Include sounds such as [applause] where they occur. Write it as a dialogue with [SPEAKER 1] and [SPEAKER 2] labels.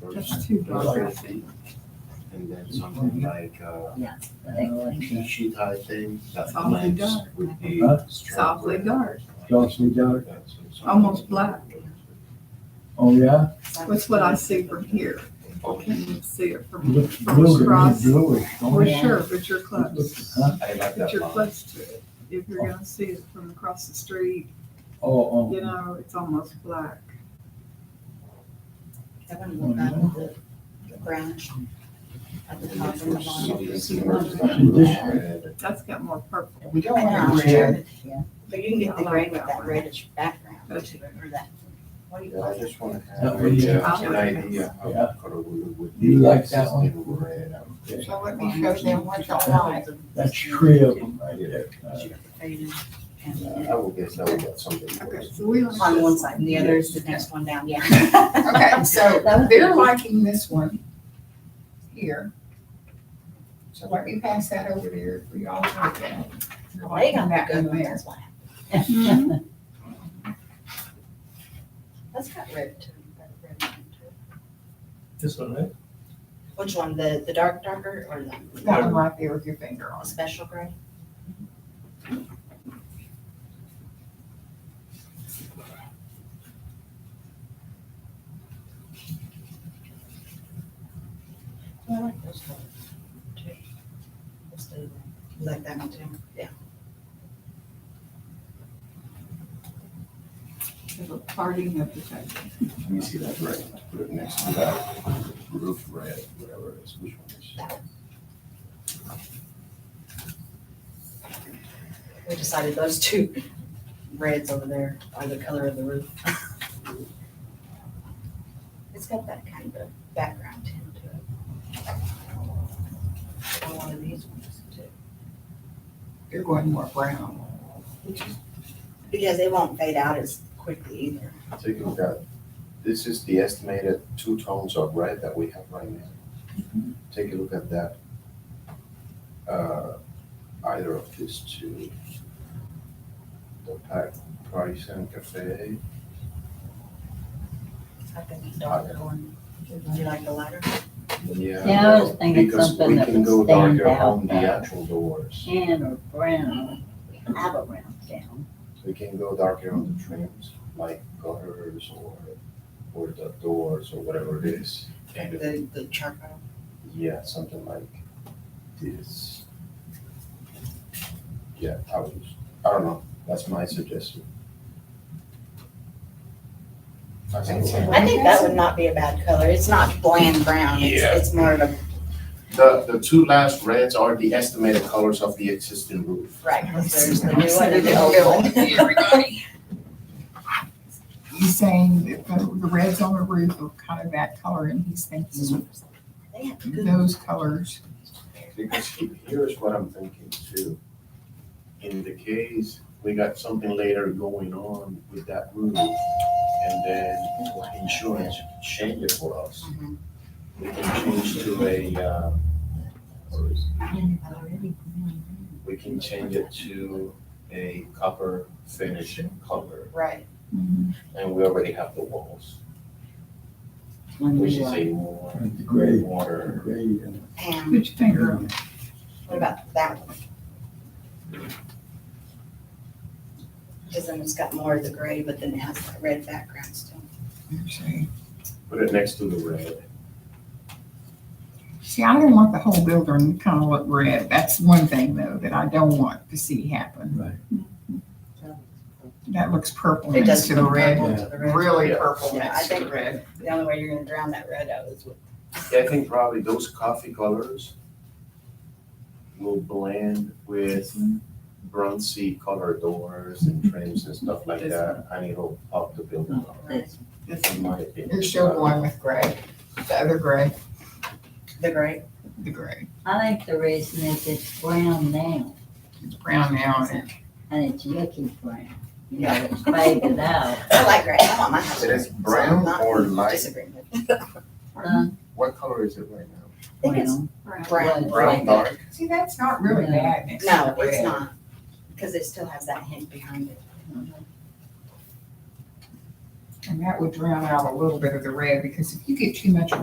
[SPEAKER 1] first.
[SPEAKER 2] too dark, I think.
[SPEAKER 1] And then something like, uh,
[SPEAKER 3] Yes.
[SPEAKER 1] cheat sheet type thing, that
[SPEAKER 2] Softly
[SPEAKER 1] lens
[SPEAKER 2] dark.
[SPEAKER 1] would be.
[SPEAKER 3] Huh?
[SPEAKER 2] Softly dark.
[SPEAKER 3] Softly dark.
[SPEAKER 1] That's something-
[SPEAKER 2] Almost black.
[SPEAKER 3] Oh, yeah?
[SPEAKER 2] That's what I see from here.
[SPEAKER 1] Okay,
[SPEAKER 2] Can you see it from,
[SPEAKER 3] Looks blue, to me,
[SPEAKER 2] Across.
[SPEAKER 3] bluish. don't
[SPEAKER 2] for
[SPEAKER 3] it?
[SPEAKER 2] sure, but you're close.
[SPEAKER 3] Looks- huh?
[SPEAKER 1] I like
[SPEAKER 2] But
[SPEAKER 1] that
[SPEAKER 2] you're
[SPEAKER 1] line.
[SPEAKER 2] close to it. If you're gonna see it from across the street,
[SPEAKER 3] Oh,
[SPEAKER 2] you
[SPEAKER 3] oh,
[SPEAKER 2] know, it's almost black.
[SPEAKER 4] I want to look back at the the branch at the top of the line.
[SPEAKER 3] See this?
[SPEAKER 1] Red.
[SPEAKER 2] That's got more purple.
[SPEAKER 4] We don't
[SPEAKER 3] want to red.
[SPEAKER 4] But you can get the gray with that reddish background to it, or that, what do you
[SPEAKER 1] Yeah, I
[SPEAKER 4] call it?
[SPEAKER 1] just wanna have
[SPEAKER 3] That
[SPEAKER 1] a,
[SPEAKER 3] way you-
[SPEAKER 1] uh, an idea of
[SPEAKER 3] Yeah.
[SPEAKER 1] what color would would be.
[SPEAKER 3] You like that one?
[SPEAKER 1] Sustainable Red. I'm just-
[SPEAKER 4] So let me show them what the lines of.
[SPEAKER 3] that's three of them right there. Uh,
[SPEAKER 4] She got the faded and
[SPEAKER 1] Uh, I
[SPEAKER 4] the-
[SPEAKER 1] would guess I would get something.
[SPEAKER 2] Okay,
[SPEAKER 1] worse.
[SPEAKER 2] so we like
[SPEAKER 4] On one
[SPEAKER 2] this.
[SPEAKER 4] side, and the other is the next one down, yeah.
[SPEAKER 5] [laughs] Okay,
[SPEAKER 4] [laughs]
[SPEAKER 5] so they're liking this one here. So let me pass that over to you for y'all to look at.
[SPEAKER 4] Well, They got that good one, that's why.
[SPEAKER 2] Mhm.
[SPEAKER 4] That's got red too. got a red line to it.
[SPEAKER 6] This one, right?
[SPEAKER 4] Which one, the, the dark darker or
[SPEAKER 5] That
[SPEAKER 4] the
[SPEAKER 5] one right there with your finger on
[SPEAKER 4] the
[SPEAKER 5] it.
[SPEAKER 4] special gray? I like those colors too. Let's do that. You Like that one too, yeah.
[SPEAKER 2] The parting of the table.
[SPEAKER 1] Let me see that red, put it next to that roof red, whatever it is, which one is?
[SPEAKER 4] We decided those two reds over there are the color of the roof. It's got that kind of background tint to it. Or one of these ones too.
[SPEAKER 5] You're going more brown.
[SPEAKER 4] Because it won't fade out as quickly either.
[SPEAKER 1] Take a look at, this is the estimated two tones of red that we have right now. Take a look at that. Uh, Either of these two. The pack price and cafe,
[SPEAKER 4] I think the darker one. Do you like the lighter?
[SPEAKER 1] yeah.
[SPEAKER 3] Yeah, I was
[SPEAKER 1] well,
[SPEAKER 3] thinking
[SPEAKER 1] because
[SPEAKER 3] something
[SPEAKER 1] we
[SPEAKER 3] that
[SPEAKER 1] can
[SPEAKER 3] would
[SPEAKER 1] go
[SPEAKER 3] stand
[SPEAKER 1] darker
[SPEAKER 3] out
[SPEAKER 1] On the
[SPEAKER 3] better.
[SPEAKER 1] actual doors,
[SPEAKER 3] tan or brown, have a brown down.
[SPEAKER 1] we can go darker on the trims, like gutters or, or the doors or whatever it is. Kind of
[SPEAKER 4] The, the charcoal?
[SPEAKER 1] Yeah, something like this. Yeah, I would, just- I don't know, that's my suggestion.
[SPEAKER 4] I think that would not be a bad color. It's not bland brown. It's,
[SPEAKER 1] Yeah.
[SPEAKER 4] it's more of a,
[SPEAKER 1] The, the two last reds are the estimated colors of the existing roof.
[SPEAKER 4] right, 'cause there's the new one and the old one. [laughs]
[SPEAKER 5] He's saying that the the reds on the roof are kind of that color and he's thinking
[SPEAKER 4] They have good
[SPEAKER 5] those colors.
[SPEAKER 1] Because he- here's what I'm thinking too. In the case, we got something later going on with that roof, and then insurance change it for us.
[SPEAKER 4] Mhm.
[SPEAKER 1] We can change to a, uh, what is it? we can change it to a copper finish and color,
[SPEAKER 4] Right.
[SPEAKER 1] and we already have the walls, which is a more
[SPEAKER 3] With the gray, the
[SPEAKER 1] water.
[SPEAKER 3] gray and
[SPEAKER 4] And
[SPEAKER 2] Put your finger on it.
[SPEAKER 4] what about that one? Because then it's got more of the gray, but then it has that red background still.
[SPEAKER 1] Put it next to the red.
[SPEAKER 5] See, I don't want the whole building to kind of look red. That's one thing though that I don't want to see happen.
[SPEAKER 3] Right.
[SPEAKER 5] That looks purple
[SPEAKER 4] It
[SPEAKER 5] next
[SPEAKER 4] does
[SPEAKER 5] to the
[SPEAKER 4] look
[SPEAKER 5] red,
[SPEAKER 4] purple to the red.
[SPEAKER 5] really
[SPEAKER 1] Yeah.
[SPEAKER 5] purple
[SPEAKER 4] Yeah, I
[SPEAKER 5] next to the
[SPEAKER 4] think-
[SPEAKER 5] red.
[SPEAKER 4] The only way you're gonna drown that red out is with,
[SPEAKER 1] Yeah, I think probably those coffee colors will blend with bronzy color doors and trims and stuff like that, and it'll pop the building up,
[SPEAKER 4] Right.
[SPEAKER 1] in my opinion.
[SPEAKER 5] You're still going with gray, the other gray,
[SPEAKER 4] the gray.
[SPEAKER 5] the gray.
[SPEAKER 7] I think the reason is it's brown now
[SPEAKER 5] It's brown now and
[SPEAKER 7] and it's yucky brown. You know, it's faded out.
[SPEAKER 4] I like gray. I want my house.
[SPEAKER 1] It is
[SPEAKER 4] gray, so
[SPEAKER 1] brown
[SPEAKER 4] I'm not
[SPEAKER 1] or light,
[SPEAKER 4] Disagreeing with.
[SPEAKER 7] Huh?
[SPEAKER 1] what color is it right now?
[SPEAKER 4] I think it's
[SPEAKER 7] Brown.
[SPEAKER 4] brown.
[SPEAKER 1] Brown, dark?
[SPEAKER 5] See, that's not really bad next to the
[SPEAKER 4] No, it's
[SPEAKER 5] red.
[SPEAKER 4] not, because it still has that hint behind it.
[SPEAKER 5] And that would drown out a little bit of the red, because if you get too much